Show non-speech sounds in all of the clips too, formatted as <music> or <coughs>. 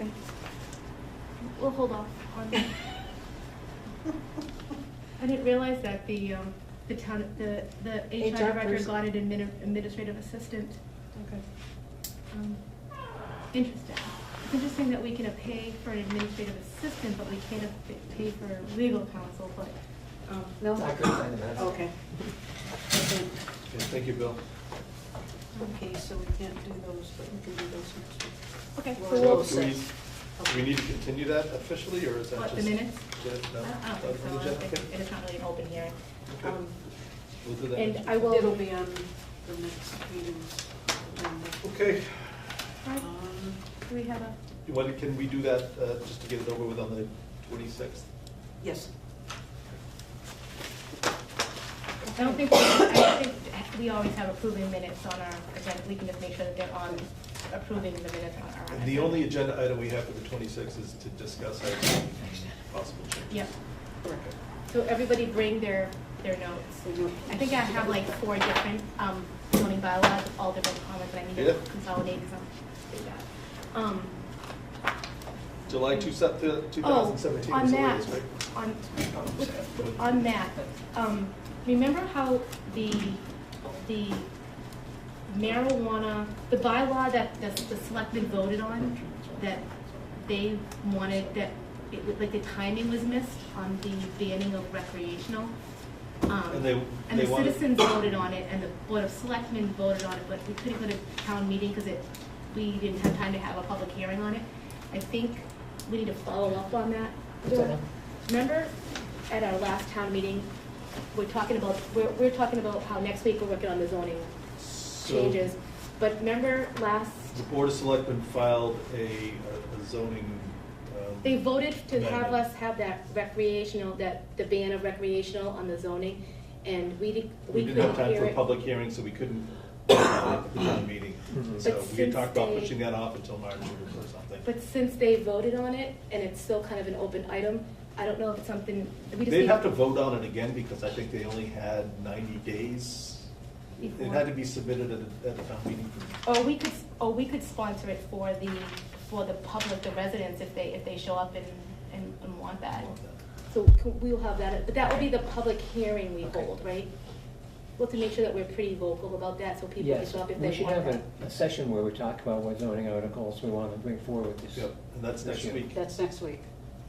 Okay. We'll hold off on that. I didn't realize that the, um, the town, the, the HR HR director person. got an admini- administrative assistant. Okay. Um, Interesting. It's interesting that we can uh, pay for an administrative assistant, but we can't uh, pa- pay for legal counsel, but Oh, no? I couldn't find the minutes. Okay. Okay. Okay, Thank you, Bill. Okay, so we can't do those, but we can do those next week. Okay, Well, so we'll we'll, So do we- set. Do we need to continue that officially, or is that What, just? the minutes? Just- no? I don't- I don't That think was so. I just- don't okay. think- It is not really an open hearing. Okay. Um, We'll do that. And next I week. will. It'll be on the next meeting's agenda. Okay, Alright, Um, Do we have a, You want- can we do that, uh, just to get it over with on the twenty-sixth? Yes. I don't think, I don't think we always have approving minutes on our agenda. We can just make sure that they're on approving the minutes on our. And the agenda. only agenda item we have for the twenty-sixth is to discuss our possible changes. Yep. Correct. So everybody bring their, their notes. I think I have like four different um, zoning bylaws, with all different comments that I need Yeah. to consolidate because I'm big at. Um, July two thousand seventeen Oh, on is the that, latest, right? on, on that, um, remember how the, the marijuana, the bylaw that the, the selectmen voted on, that they wanted, that, it, was- like, the timing was missed on the banning of recreational? um, And they- And they the wanted- citizens voted on it, and the board of selectmen voted on it, but we couldn't go to town meeting, cause it, we didn't have time to have a public hearing on it. I think we need to follow up on that. What's that? Remember at our last town meeting, we're talking about, we're, we're talking about how next week we're working on the zoning So, changes. But remember last, The Board of Selectmen filed a a zoning. um, they voted to have amendment. us have that recreational, that, the ban of recreational on the zoning, and we didn't, We we didn't have couldn't time hear for a it. public hearing, so we couldn't, <coughs> uh, at the town meeting. Mhm. Mm-hmm. But So we had since talked about they- pushing that off until March or something. But since they voted on it, and it's still kind of an open item, I don't know if it's something, we just need. They'd have to vote on it again because I think they only had ninety days. It Before. had to be submitted at, a- at the town meeting. Or we could, or we could sponsor it for the, for the public, the residents, if they, if they show up and, and, and want that. So c- we'll have that, but that will be the public hearing we Okay. hold, right? We'll have to make sure that we're pretty vocal about that, so people can Yes, show up if we they should want have that. a, a session where we talk about what zoning articles we want to bring forward this. Yep, and that's this next year. week. That's next week.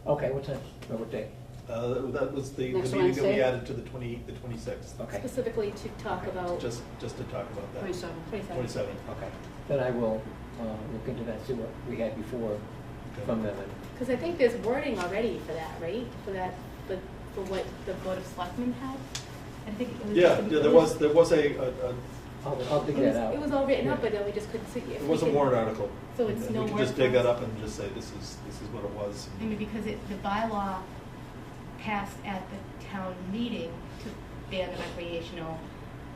Okay, what time, Well, what day? Uh, that was the, the Next meeting that we Wednesday? added to the twenty, the twenty-sixth. Okay, Specifically to talk about Just, just to talk about that. Twenty-seven. twenty-seven. Twenty-seven. okay. Then I will, uh, look into that, see what we had before Okay. from them. and- Because I think there's wording already for that, right? For that, for, for what the Board of Selectmen had? I think it was. Yeah, yeah, there was, there was a, a, a- I'll, I'll dig It was- that out. It was all written up, Yeah. but then we just couldn't see. if it we was a could- warrant article. So it's And no We could just warrant dig that up article? and just say, this is, this is what it was. I mean, because it, the bylaw passed at the town meeting to ban the recreational,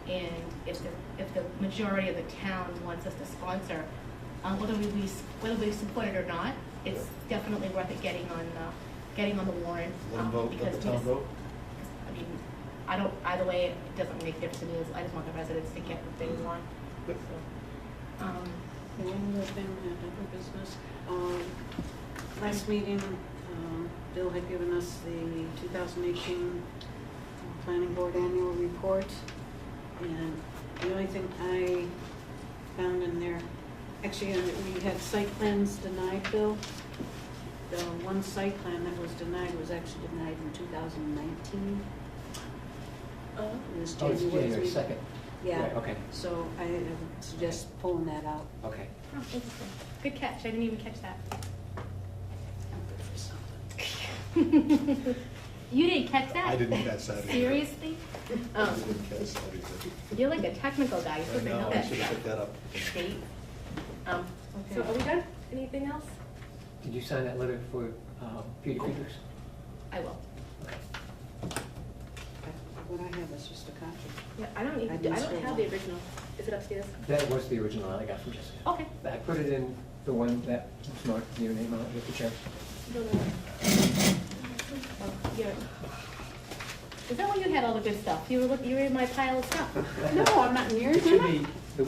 and if the, if the majority of the town wants us to sponsor, um, whether we, we, whether we support it or not, it's definitely worth it getting on, uh, getting on the warrant. Let them um, vote, let because the we town just- vote. I mean, I don't, either way, it doesn't make a difference to me, I just want the residents to get what they Mm-hmm. want, so. Yep. Um, And One more thing, and other business. Um, Last meeting, um, Bill had given us the 2018 Planning Board Annual Report. And the only thing I found in there, actually, uh, we had site plans denied, Bill. The one site plan that was denied was actually denied in 2019. It was Oh, it's January January three- second. Yeah, Okay, so I uh, suggest pulling that out. okay. oh, interesting. Good catch, I didn't even catch that. I'm good for something. You didn't catch that? I didn't catch that either. Seriously? I Um, didn't catch that either. You're like a technical guy, you're I supposed to know, know I that should have stuff. picked that up. Date. Um, So Okay. are we done? Anything else? Did you sign that letter for, uh, Peter Peters? I will. What I have is just a copy. Yeah, I don't I even, didn't I don't scroll have the down. original. Is it upstairs? That was the original I got from Jessica. Okay. I put it in the one that was marked your name on it with the check. No, no, no. Oh, you're- Is that when you had all the good stuff? You were look, you were in my pile of stuff. No, I'm not near It should be,